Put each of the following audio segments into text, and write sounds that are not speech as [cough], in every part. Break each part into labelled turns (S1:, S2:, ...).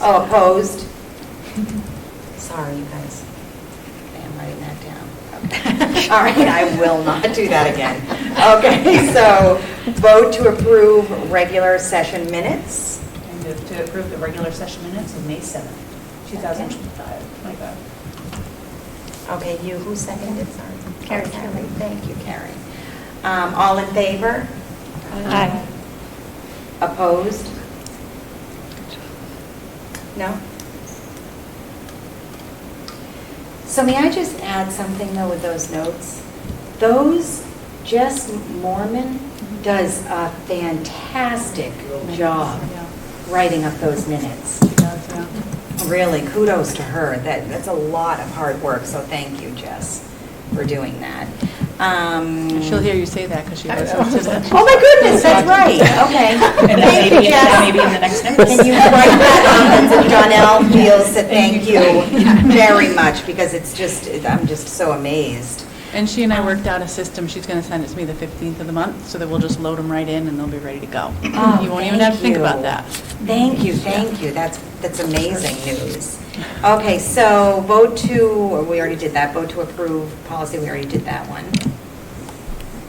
S1: Oh, opposed? Sorry, you guys. Okay, I'm writing that down. [laughs] Okay. All right, I will not do that again. Okay, so vote to approve regular session minutes.
S2: I move to approve the regular session minutes of May 7th, 2025.
S1: Okay, you, who seconded, sorry?
S3: Carrie.
S1: Oh, Thank you, Carrie. Um, All in favor?
S3: Aye.
S1: Opposed? No? So may I just add something, though, with those notes? Those, Jess Mormon does a fantastic job writing up those minutes. Really, kudos to her. That, that's a lot of hard work, so thank you, Jess, for doing that. Um,
S4: She'll hear you say that because she
S2: I
S4: goes
S2: know.
S4: up to the.
S1: Oh, my goodness, that's right, okay.
S2: And
S1: Thank you,
S2: [laughs] maybe,
S1: Jess.
S2: maybe in the next notice.
S1: Can you write that on, and Donnell feels that thank you
S2: [laughs]
S1: very much, because it's just, I'm just so amazed.
S4: And she and I worked out a system, she's going to send it to me the 15th of the month, so that we'll just load them right in and they'll be ready to go.
S1: Oh,
S4: You won't even have to think
S1: thank you.
S4: about that.
S1: Thank you, thank you, that's, that's amazing news. Okay, so vote to, we already did that, vote to approve policy, we already did that one.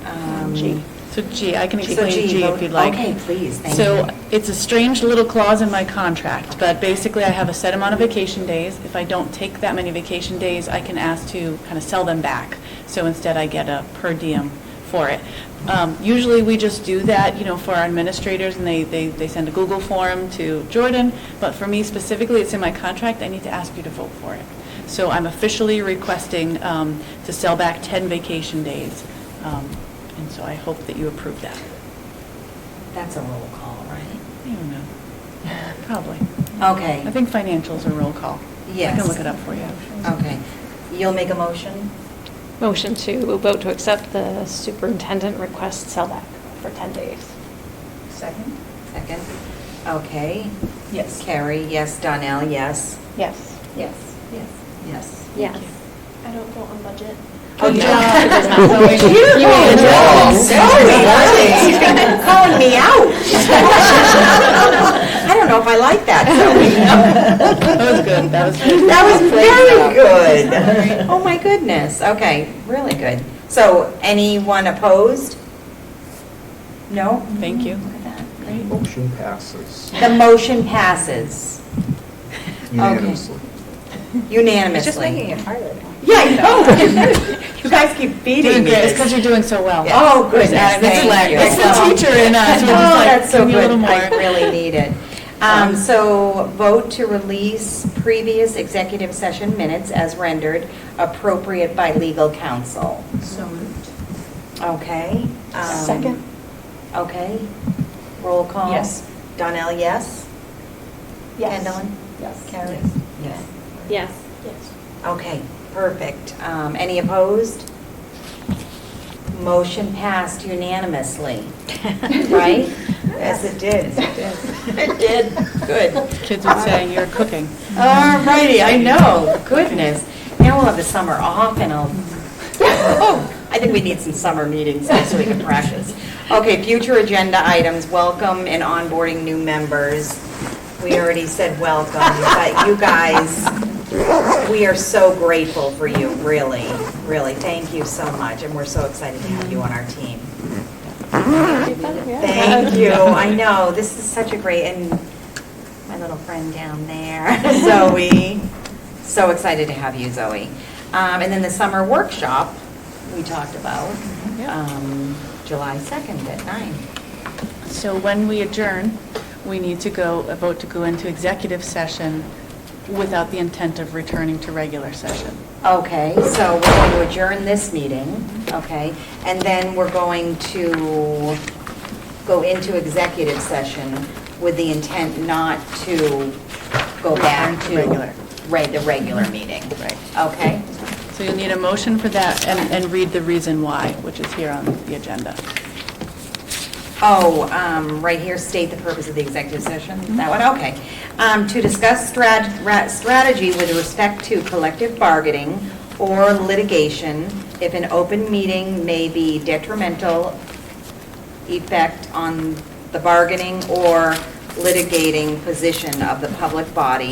S1: Um,
S4: G. So G, I can
S1: So
S4: explain
S1: G,
S4: G
S1: vote-
S4: if you'd like.
S1: okay, please, thank you.
S4: So it's a strange little clause in my contract, but basically I have a set amount of vacation days. If I don't take that many vacation days, I can ask to kind of sell them back. So instead I get a per diem for it. Um, Usually we just do that, you know, for our administrators and they, they, they send a Google form to Jordan. But for me specifically, it's in my contract, I need to ask you to vote for it. So I'm officially requesting um, to sell back 10 vacation days. Um, And so I hope that you approve that.
S1: That's a roll call,
S4: I don't know. Probably.
S1: right? Okay.
S4: I think financials are roll call. I
S1: Yes.
S4: can look it up for you.
S1: Okay, you'll make a motion?
S3: Motion to vote to accept the superintendent request sell back for 10 days.
S2: Second?
S1: Second. Okay.
S2: Yes.
S1: Carrie, yes. Donnell, yes.
S3: Yes.
S1: Yes. Yes. Yes.
S3: Yes.
S5: I don't go on budget.
S1: Oh,
S2: [laughs]
S1: [laughs]
S4: Yeah.
S1: John.
S4: It does not. So we-
S1: You made a joke.
S3: joke.
S1: Sorry, honey. Calling me out. [laughs]
S3: [laughs]
S1: I don't
S2: [laughs]
S1: know if I like that, Sylvia.
S4: That was good, that was good.
S1: That was very good. Oh, my goodness. Okay, really good. So anyone opposed? No?
S4: Thank you.
S1: Look at that. Great.
S6: Motion passes
S1: The motion passes
S6: unanimously.
S1: unanimously.
S2: It's just making it harder.
S1: Yeah, I know. You guys keep beating
S4: Doing
S1: me.
S4: great, it's because you're doing so well.
S1: Yes. Oh, goodness, thank you.
S4: It's the teacher in us,
S1: Oh, [laughs]
S4: we're just like,
S1: that's so
S4: "Give me a
S1: good.
S4: little more."
S1: I really need [laughs] it. Um, So vote to release previous executive session minutes as rendered appropriate by legal counsel.
S2: So moved.
S1: Okay? um,
S3: Second.
S1: Okay. Roll call.
S2: Yes.
S1: Donnell, yes?
S3: Yes.
S1: Kendall?
S2: Yes.
S1: Carrie? Yes.
S3: Yes.
S1: Okay, perfect. Um, Any opposed? Motion passed unanimously,
S4: [laughs]
S1: right? Yes, it did. It did, good.
S4: Kids would say, you're cooking.
S1: All righty, I know, goodness. Now we'll have the summer off and I'll, oh, I think we need some summer meetings so we can practice. Okay, future agenda items, welcome and onboarding new members. We already said welcome, but you guys, we are so grateful for you, really, really. Thank you so much, and we're so excited to have you on our team.
S3: [laughs]
S1: Thank you, I know, this is such a great, and my little friend down there, Zoe. So excited to have you, Zoe. Um, And then the summer workshop we talked about, um, July 2nd at nine.
S4: So when we adjourn, we need to go, a vote to go into executive session without the intent of returning to regular session.
S1: Okay, so we're going to adjourn this meeting, okay? And then we're going to go into executive session with the intent not to go back to.
S4: Return to regular.
S1: Right, the regular meeting.
S4: Right.
S1: Okay?
S4: So you'll need a motion for that and, and read the reason why, which is here on the agenda.
S1: Oh, um, right here, state the purpose of the executive session, that one, okay. Um, To discuss strat- ra- strategy with respect to collective bargaining or litigation if an open meeting may be detrimental effect on the bargaining or litigating position of the public body